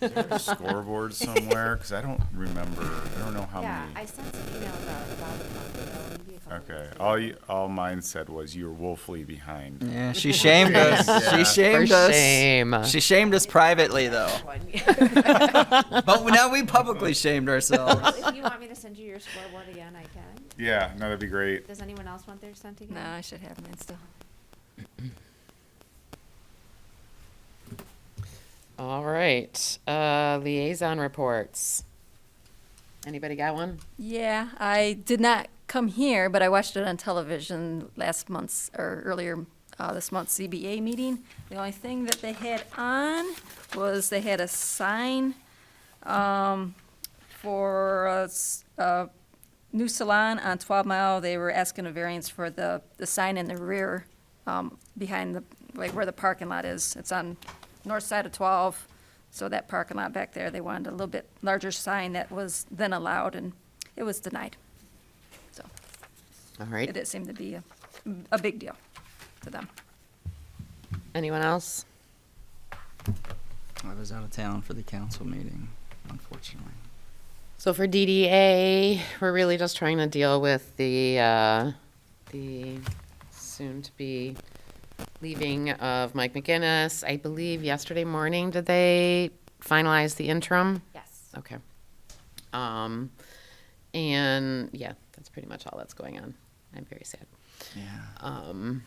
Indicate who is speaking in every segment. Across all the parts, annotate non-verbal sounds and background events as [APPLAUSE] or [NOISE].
Speaker 1: Is there a
Speaker 2: [LAUGHS]
Speaker 1: scoreboard somewhere? Because I don't remember, I don't know how
Speaker 2: Yeah, I
Speaker 1: many.
Speaker 2: sent an email about, about a month ago, maybe a couple
Speaker 1: Okay,
Speaker 2: months ago.
Speaker 1: all you, all mine said was you're woefully behind.
Speaker 3: Yeah, she shamed us.
Speaker 4: [LAUGHS]
Speaker 3: She shamed
Speaker 4: For
Speaker 3: us.
Speaker 4: shame.
Speaker 3: She shamed us privately, though.
Speaker 2: [LAUGHS] One.
Speaker 1: [LAUGHS]
Speaker 3: But now we
Speaker 4: [LAUGHS]
Speaker 3: publicly shamed ourselves.
Speaker 2: If you want me to send you your scoreboard again, I can.
Speaker 1: Yeah, no, that'd be great.
Speaker 2: Does anyone else want theirs sent again?
Speaker 5: No, I should have mine still.
Speaker 4: All right. Uh, liaison reports. Anybody got one?
Speaker 5: Yeah, I did not come here, but I watched it on television last month's, or earlier uh, this month's CBA meeting. The only thing that they had on was they had a sign um, for a s- a new salon on 12 Mile. They were asking a variance for the, the sign in the rear um, behind the, like where the parking lot is. It's on north side of 12, so that parking lot back there, they wanted a little bit larger sign that was then allowed, and it was denied. So
Speaker 4: All
Speaker 5: it
Speaker 4: right.
Speaker 5: didn't seem to be a, a big deal to them.
Speaker 4: Anyone else?
Speaker 3: I was out of town for the council meeting, unfortunately.
Speaker 4: So for DDA, we're really just trying to deal with the, uh, the soon-to-be leaving of Mike McGinnis. I believe yesterday morning, did they finalize the interim?
Speaker 2: Yes.
Speaker 4: Okay. Um, and yeah, that's pretty much all that's going on. I'm very sad.
Speaker 3: Yeah.
Speaker 4: Um,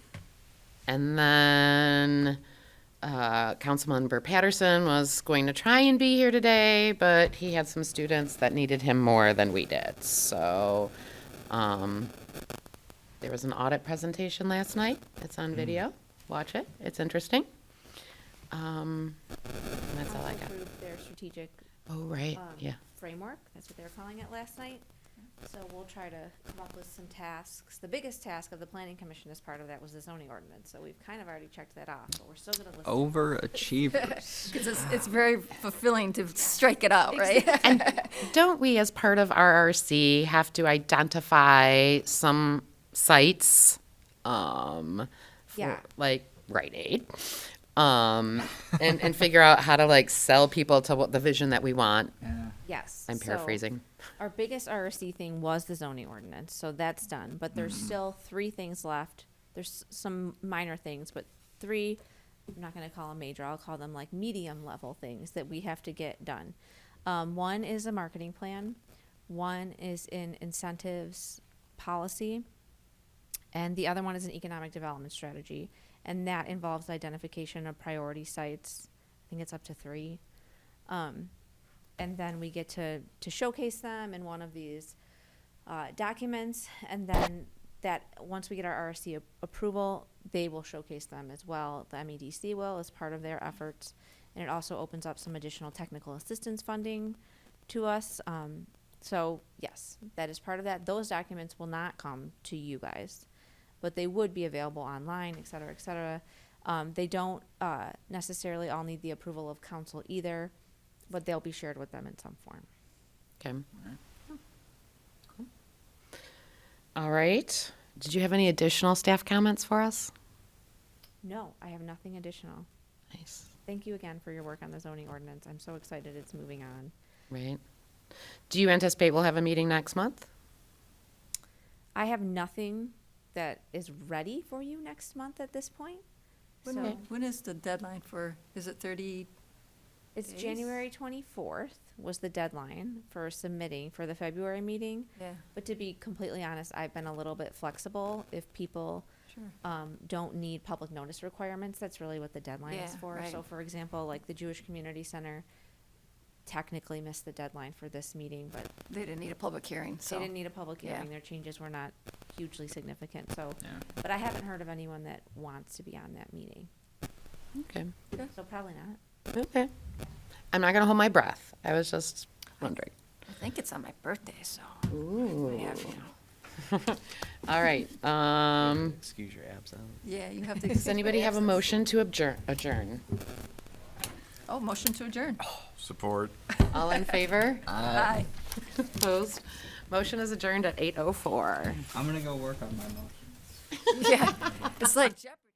Speaker 4: and then uh, Councilmember Patterson was going to try and be here today, but he had some students that needed him more than we did. So um, there was an audit presentation last night. It's on video. Watch it. It's interesting. Um, and that's all I
Speaker 2: Council
Speaker 4: got.
Speaker 2: approved Their strategic
Speaker 4: Oh, right.
Speaker 2: um,
Speaker 4: Yeah.
Speaker 2: framework, that's what they were calling it last night. So we'll try to come up with some tasks. The biggest task of the planning commission as part of that was the zoning ordinance, so we've kind of already checked that off, but we're still gonna listen.
Speaker 4: Oh.
Speaker 3: Overachievers. [LAUGHS]
Speaker 5: Because it's, it's very fulfilling to strike it out, right? [LAUGHS]
Speaker 4: Don't we, as part of RRC, have to identify some sites? Um, for,
Speaker 2: Yeah.
Speaker 4: Like Rite Aid. Um, and, and figure out how to like sell people to what the vision that we want.
Speaker 2: Yes.
Speaker 4: I'm
Speaker 2: so
Speaker 4: paraphrasing.
Speaker 2: Our biggest RRC thing was the zoning ordinance, so that's done, but there's still three things left. There's s- some minor things, but three, I'm not gonna call them major, I'll call them like medium level things that we have to get done. Um, one is a marketing plan, one is in incentives policy, and the other one is an economic development strategy, and that involves identification of priority sites. I think it's up to three. Um, and then we get to, to showcase them in one of these uh, documents. And then that, once we get our RSC a- approval, they will showcase them as well. The MEDC will as part of their efforts. And it also opens up some additional technical assistance funding to us. Um, so yes, that is part of that. Those documents will not come to you guys, but they would be available online, et cetera, et cetera. Um, they don't uh, necessarily all need the approval of council either, but they'll be shared with them in some form.
Speaker 4: Okay. Cool. All right. Did you have any additional staff comments for us?
Speaker 2: No, I have nothing additional.
Speaker 4: Nice.
Speaker 2: Thank you again for your work on the zoning ordinance. I'm so excited it's moving on.
Speaker 4: Right. Do you anticipate we'll have a meeting next month?
Speaker 2: I have nothing that is ready for you next month at this point. So
Speaker 5: When is the deadline for, is it 30?
Speaker 2: it's
Speaker 5: Days?
Speaker 2: January 24th was the deadline for submitting for the February meeting.
Speaker 5: Yeah,
Speaker 2: But to be completely honest, I've been a little bit flexible. If people
Speaker 5: sure.
Speaker 2: um, don't need public notice requirements, that's really what the deadline is
Speaker 5: Yeah,
Speaker 2: for. So,
Speaker 5: right.
Speaker 2: for example, like the Jewish Community Center technically missed the deadline for this meeting, but
Speaker 5: They didn't need a public hearing, so.
Speaker 2: they didn't need a public
Speaker 5: yeah.
Speaker 2: hearing. Their changes were not hugely significant. So,
Speaker 3: Yeah.
Speaker 2: but I haven't heard of anyone that wants to be on that meeting. Mm-hmm.
Speaker 4: Okay.
Speaker 2: So probably not.
Speaker 4: Okay. I'm not gonna hold my breath. I was just wondering.
Speaker 5: I think it's on my birthday, so.
Speaker 4: Ooh.
Speaker 5: Yeah, you know.
Speaker 4: All right. Um,
Speaker 6: Excuse your absence.
Speaker 5: Yeah, you have to. [LAUGHS]
Speaker 4: does anybody have a motion to adjourn? Adjourn.
Speaker 5: Oh, motion to [LAUGHS] adjourn.
Speaker 1: Support.
Speaker 4: All in favor?
Speaker 5: Aye.
Speaker 4: Opposed? Motion is adjourned at 8:04.
Speaker 3: I'm gonna go work on my motion.
Speaker 5: Yeah, it's like Jeopardy.